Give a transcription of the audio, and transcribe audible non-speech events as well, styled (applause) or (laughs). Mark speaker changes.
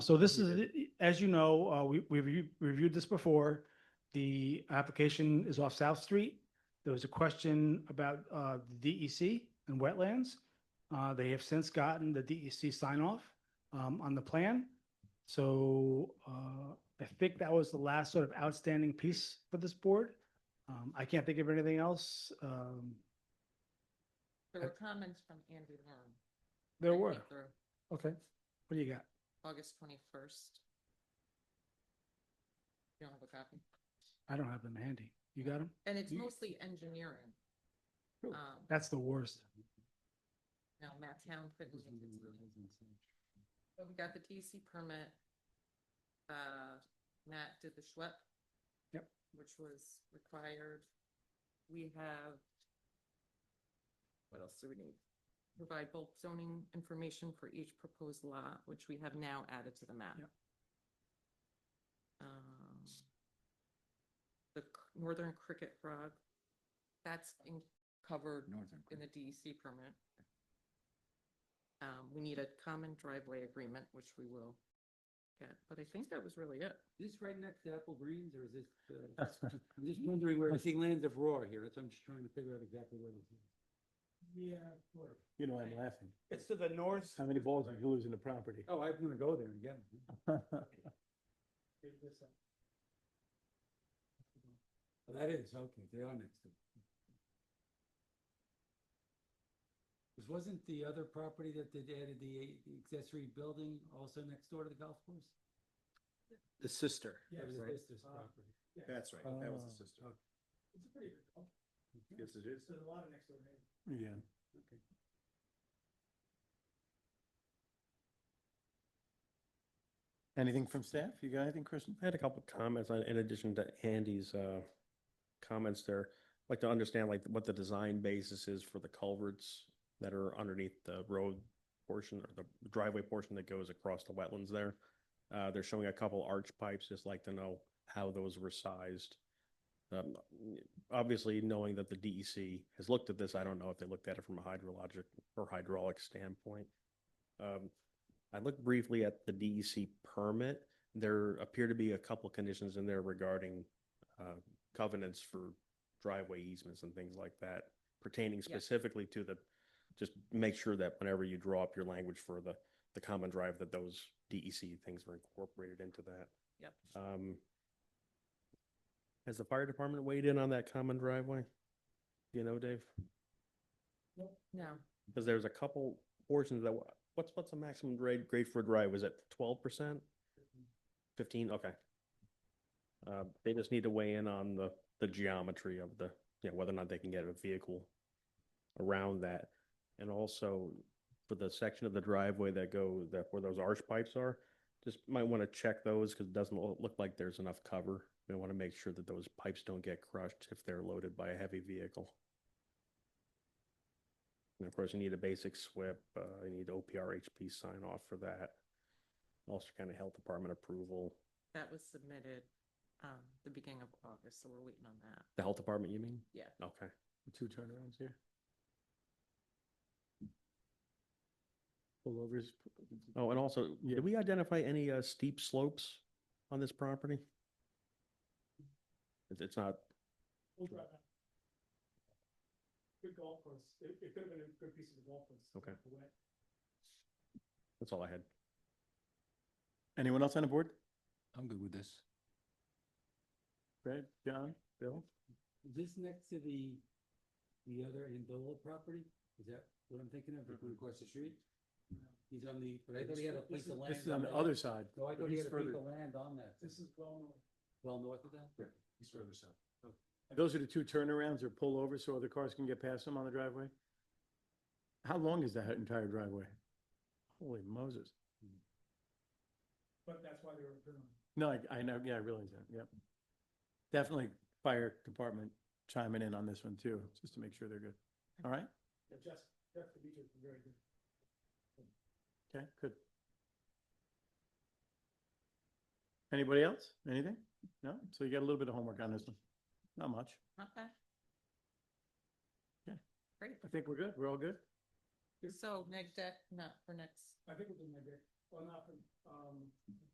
Speaker 1: So this is, as you know, uh, we, we review- reviewed this before. The application is off South Street. There was a question about, uh, the DEC and wetlands. Uh, they have since gotten the DEC sign off, um, on the plan. So, uh, I think that was the last sort of outstanding piece for this board. Um, I can't think of anything else. Um,
Speaker 2: There were comments from Andy Long.
Speaker 1: there
Speaker 2: I
Speaker 1: were.
Speaker 2: went through
Speaker 1: Okay. What do you got?
Speaker 2: August twenty-first. You don't have a copy?
Speaker 1: I don't have them handy. You got them?
Speaker 2: And it's
Speaker 1: You-
Speaker 2: mostly engineering.
Speaker 1: Cool.
Speaker 2: Um,
Speaker 1: That's the worst.
Speaker 2: no, Matt Town couldn't. make it tonight. But we got the DC permit. Uh, Matt did the Schlepp.
Speaker 1: Yep.
Speaker 2: Which was required. We have. What else do we need? Provide bulk zoning information for each proposed lot, which we have now added to the map.
Speaker 1: Yep.
Speaker 2: Um, The c- northern cricket frog, that's in- covered
Speaker 3: Northern.
Speaker 2: in the DEC permit. Um, we need a common driveway agreement, which we will get, but I think that was really it.
Speaker 3: Is this right next to Apple Greens or is this, uh, I'm just wondering where, I see Lands of Roar here. That's, I'm just trying to figure out exactly where this is.
Speaker 1: Yeah.
Speaker 4: You know, I'm laughing.
Speaker 1: It's to the north.
Speaker 4: How many balls did you lose in the property?
Speaker 3: Oh, I'm gonna go there and get it.
Speaker 4: (laughs)
Speaker 3: Oh, That is, okay, they are next to. This wasn't the other property that they added the a- the accessory building also next door to the golf course?
Speaker 5: The sister.
Speaker 3: That was
Speaker 5: right?
Speaker 3: his sister's
Speaker 1: Uh,
Speaker 3: property. Uh,
Speaker 5: That's right, that was
Speaker 4: Oh,
Speaker 5: the sister.
Speaker 3: okay.
Speaker 1: It's a pretty good call.
Speaker 5: Yes, it is.
Speaker 1: There's a lot of next door neighbors.
Speaker 4: Yeah. Anything from staff? You got anything, Kristen?
Speaker 6: I had a couple of comments on, in addition to Andy's, uh, comments there. I'd Like to understand like what the design basis is for the culverts that are underneath the road portion or the driveway portion that goes across the wetlands there. Uh, they're showing a couple arch pipes, just like to know how those were sized. Um, obviously knowing that the DEC has looked at this, I don't know if they looked at it from a hydrologic or hydraulic standpoint. Um, I looked briefly at the DEC permit there appear to be a couple conditions in there regarding uh, covenants for driveway easements and things like that pertaining specifically to the, just make sure that whenever you draw up your language for the, the common drive, that those DEC things were incorporated into that.
Speaker 2: Yep.
Speaker 6: Um, Has the fire department weighed in on that common driveway? Do you know, Dave?
Speaker 2: No,
Speaker 6: Because there's a couple portions that, wa- what's, what's the maximum grade, grade for a drive? Was it twelve percent? Fifteen, okay. Uh, they just need to weigh in on the, the geometry of the, you know, whether or not they can get a vehicle around that. And also for the section of the driveway that go, that where those arch pipes are, just might want to check those because it doesn't lo- look like there's enough cover. We want to make sure that those pipes don't get crushed if they're loaded by a heavy vehicle. And of course, you need a basic SWIP, uh, you need OPR HP sign off for that. Also kind of health department approval,
Speaker 2: that was submitted, um, the beginning of August, so we're waiting on that.
Speaker 6: the health department, you mean?
Speaker 2: Yeah.
Speaker 6: Okay.
Speaker 4: Two turnarounds here. Pullovers.
Speaker 6: Oh, and also,
Speaker 4: Yeah.
Speaker 6: did we identify any, uh, steep slopes on this property? It's, it's not,
Speaker 1: Good golf course. It, it could have been a good piece of the golf course.
Speaker 6: Okay. that's all I had.
Speaker 4: Anyone else on the board?
Speaker 3: I'm good with this.
Speaker 4: Brad, John, Bill?
Speaker 3: Is this next to the, the other Andola property? Is that what I'm thinking of, the one across the street? He's on the, but I thought he had a
Speaker 4: This
Speaker 3: piece
Speaker 4: is-
Speaker 3: of land.
Speaker 4: This is on the
Speaker 3: that.
Speaker 4: other side.
Speaker 3: No, I
Speaker 4: but
Speaker 3: thought he
Speaker 4: he's
Speaker 3: had a piece
Speaker 4: further-
Speaker 3: of land on that. This is well north. Well north of that? Yeah, he's further south.
Speaker 4: Those are the two turnarounds or pullovers so other cars can get past them on the driveway? How long is that entire driveway? Holy Moses.
Speaker 1: But that's why they were doing
Speaker 4: No, I, I know, yeah, I realize that, yep. Definitely fire department chiming in on this one too, just to make sure they're good. All right?
Speaker 1: it. Jeff, Jeff the beaches were very good.
Speaker 4: Okay, good. Anybody else? Anything? No? So you got a little bit of homework on this one. Not much.
Speaker 2: Okay.
Speaker 4: Yeah.
Speaker 2: Great.
Speaker 4: I think we're good. We're all good?
Speaker 2: So neg deck, not for next,
Speaker 1: I think it was in my day.
Speaker 3: Well, not from, um,